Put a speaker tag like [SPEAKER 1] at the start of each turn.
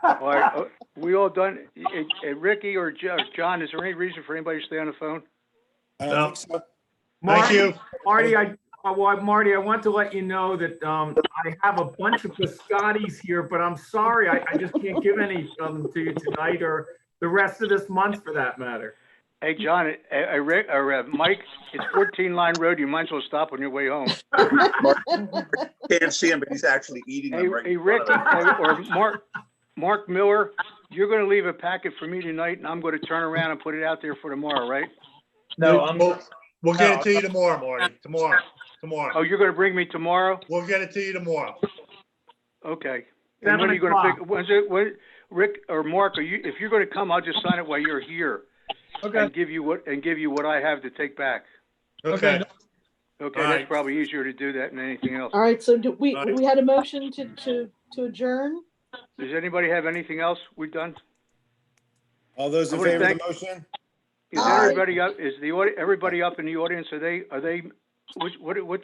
[SPEAKER 1] All right, uh, we all done, eh, eh, Ricky or Jo- or John, is there any reason for anybody to stay on the phone?
[SPEAKER 2] I
[SPEAKER 3] No.
[SPEAKER 2] don't think so.
[SPEAKER 3] Uh, Thank
[SPEAKER 4] Marty,
[SPEAKER 3] you.
[SPEAKER 4] Marty, I, uh, well, Marty, I want to let you know that um, I have a bunch of biscottis here, but I'm sorry, I, I just can't give any of them to you tonight or the rest of this month for that matter.
[SPEAKER 1] Hey, John, eh, eh, Rick, or eh, Mike, it's fourteen line road, you might as well stop on your way home.
[SPEAKER 5] Can't see him, but he's actually eating
[SPEAKER 1] Hey,
[SPEAKER 5] them right
[SPEAKER 1] hey,
[SPEAKER 5] in
[SPEAKER 1] Rick,
[SPEAKER 5] front of us.
[SPEAKER 1] eh, or Mark, Mark Miller, you're gonna leave a packet for me tonight, and I'm gonna turn around and put it out there for tomorrow, right?
[SPEAKER 3] No,
[SPEAKER 5] No,
[SPEAKER 3] I'm,
[SPEAKER 5] I'm-
[SPEAKER 3] we'll, we'll get it to you tomorrow, Marty, tomorrow, tomorrow.
[SPEAKER 1] Oh, you're gonna bring me tomorrow?
[SPEAKER 3] We'll get it to you tomorrow.
[SPEAKER 1] Okay. And when are
[SPEAKER 4] Seven
[SPEAKER 1] you gonna pick,
[SPEAKER 4] o'clock.
[SPEAKER 1] when's it, when, Rick or Mark, are you, if you're gonna come, I'll just sign it while you're here and give you what, and give you what I have to take back.
[SPEAKER 3] Okay,
[SPEAKER 1] Okay,
[SPEAKER 3] All
[SPEAKER 1] that's
[SPEAKER 3] right.
[SPEAKER 1] probably easier to do that than anything else.
[SPEAKER 6] All right, so do we,
[SPEAKER 3] Right.
[SPEAKER 6] we had a motion to, to, to adjourn?
[SPEAKER 1] Does anybody have anything else we have done?
[SPEAKER 2] All those
[SPEAKER 1] I
[SPEAKER 2] in
[SPEAKER 1] wanna
[SPEAKER 2] favor of
[SPEAKER 1] thank-
[SPEAKER 2] the motion?
[SPEAKER 1] Is
[SPEAKER 6] Aye.
[SPEAKER 1] everybody up, is the, audi- everybody up in the audience, are they, are they, which, what, what